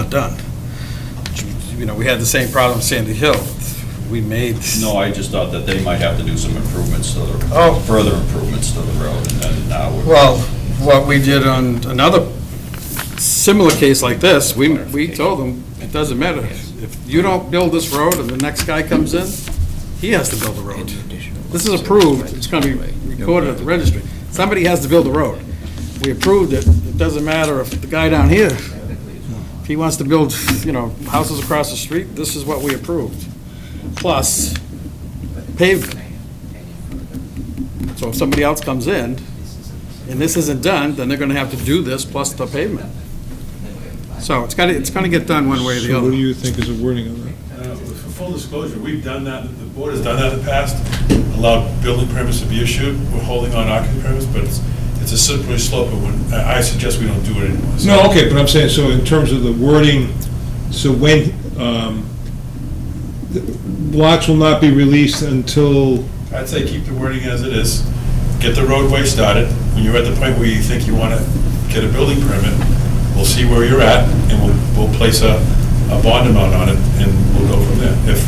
done. You know, we had the same problem Sandy Hill. We made. No, I just thought that they might have to do some improvements to Oh. the, further improvements to the road, and then now we're. Well, what we did on another similar case like this, we, we told them, it doesn't matter. If you don't build this road and the next guy comes in, he has to build the road. This is approved, it's gonna be recorded at the registry. Somebody has to build the road. We approved it, it doesn't matter if the guy down here, if he wants to build, you know, houses across the street, this is what we approved. Plus pavement. So if somebody else comes in, and this isn't done, then they're gonna have to do this plus the pavement. So it's gotta, it's gonna get done one way or the So what do other. you think is the wording of that? Uh, For full disclosure, we've done that, the board has done that in the past, allowed building permits to be issued, we're holding on occupancy permits, but it's, it's a slippery slope, but when, I I suggest we don't do it anymore. So- No, okay, but I'm saying, so in terms of the wording, so when, um, the blocks will not be released until, I'd say keep the wording as it is, get the roadway started, when you're at the point where you think you want to get a building permit, we'll see where you're at, and we'll, we'll place a, a bond amount on it, and we'll go from there. If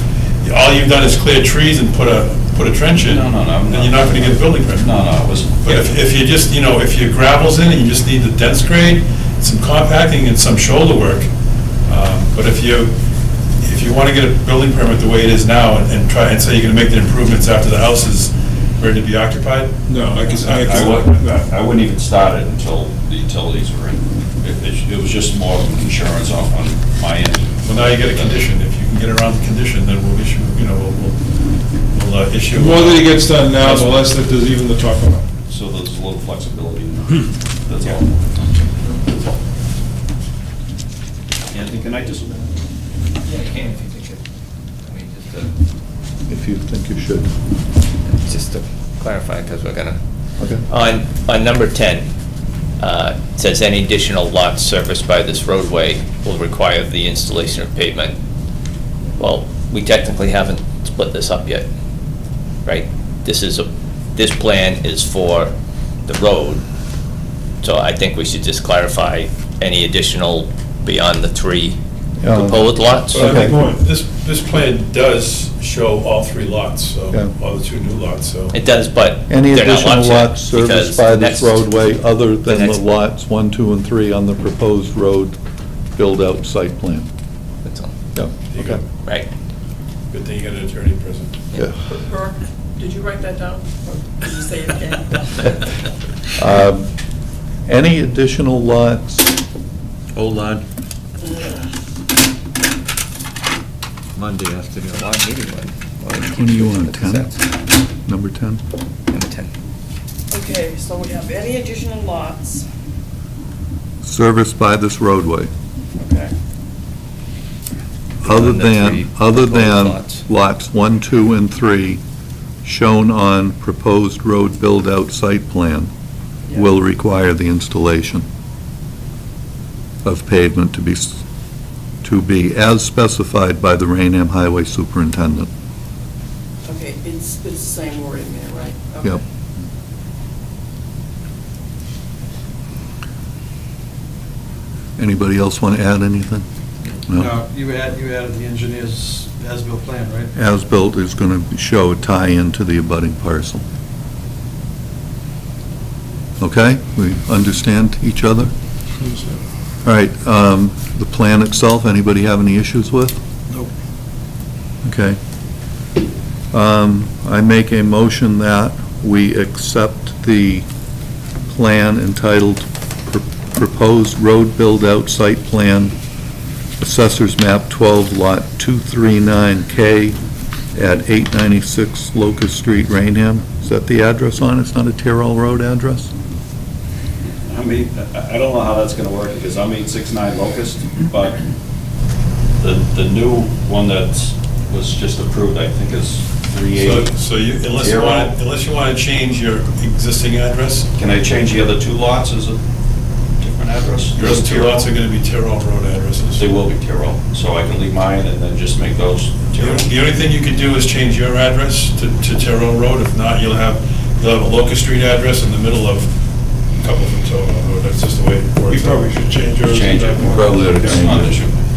all you've done is clear trees and put a, put a trench in, No, no, no, I'm then you're not going to get a building permit. No, no, it was, But if, if you just, you know, if your gravel's in it, you just need the dense grade, some compacting and some shoulder work. Um, But if you, if you want to get a building permit the way it is now and- and try and say you're going to make the improvements after the house is ready to be occupied? no, I guess, I I guess. wouldn't, I wouldn't even start it until the utilities were in. It- It, it was just more of an insurance on, on my end. Well, now you get a condition. If you can get around the condition, then we'll issue, you know, we'll, we'll- we'll uh, issue. The more that it gets done now, the less that there's even to talk about. So there's a little flexibility, in Hmm. that. that's all. Anthony, can I just, Yeah, you can if you think it, I mean, just uh, to, if you think you should. just to clarify, because we're gonna. Okay. On, on number 10, uh, it says any additional lots serviced by this roadway will require the installation of pavement. Well, we technically haven't split this up yet, right? This is, a this plan is for the road, so I think we should just clarify any additional beyond the three Yeah. proposed lots. So I think Okay. this, this plan does show all three lots, so, Yeah. all the two new lots, so. It does, but Any they're not additional yet, lots serviced because by the next- this roadway other the than the next- lots 1, 2, and 3 on the proposed road build-out site plan? That's all, Yep, There you go. okay. Right. Good thing you got an attorney present. Yeah. Burke, did you write that down? Or Did you say it again? Um, Any additional lots? Hold on. Monday afternoon. When are you on, 10? Number 10? Number 10. Okay, so we have any additional lots, Serviced by this roadway, okay, other the than, three other than proposed lots. lots 1, 2, and 3 shown on proposed road build-out site plan Yeah. will require the installation of pavement to be, s- to be as specified by the Rainham Highway Superintendent. okay, it's, it's the same wording there, right? Okay. Yep. Anybody else want to add anything? No, you add, you added the engineer's as-built plan, right? As-built is going to show a tie-in to the abutting parcel. Okay? We understand each other? All right, um, the plan itself, anybody have any issues with? Nope. Okay. Um, I make a motion that we accept the plan entitled Pro- Proposed Road Build-Out Site Plan, Assessors Map 12, Lot 239K, at 896 Locust Street, Rainham. Is that the address on? it? It's not a Terrell Road address? I mean, I I don't know how that's gonna work, because I'm eight six nine Locust, but the, the new one that was just approved, I think, is three So, eighty. so you, unless you Zero. want, unless you want to change your existing address, Can I change the other two lots as a different address? your other two lots are going to be Terrell Road addresses. They will be Tyrrell, so I can leave mine and then just make those The Tyrrell. only- the only thing you could do is change your address to, to Terrell Road. If not, you'll have, you'll have a Locust Street address in the middle of a couple from Terrell Road. That's just the way it works. We probably should change yours. Change it. Probably oughta It's change not an it. issue.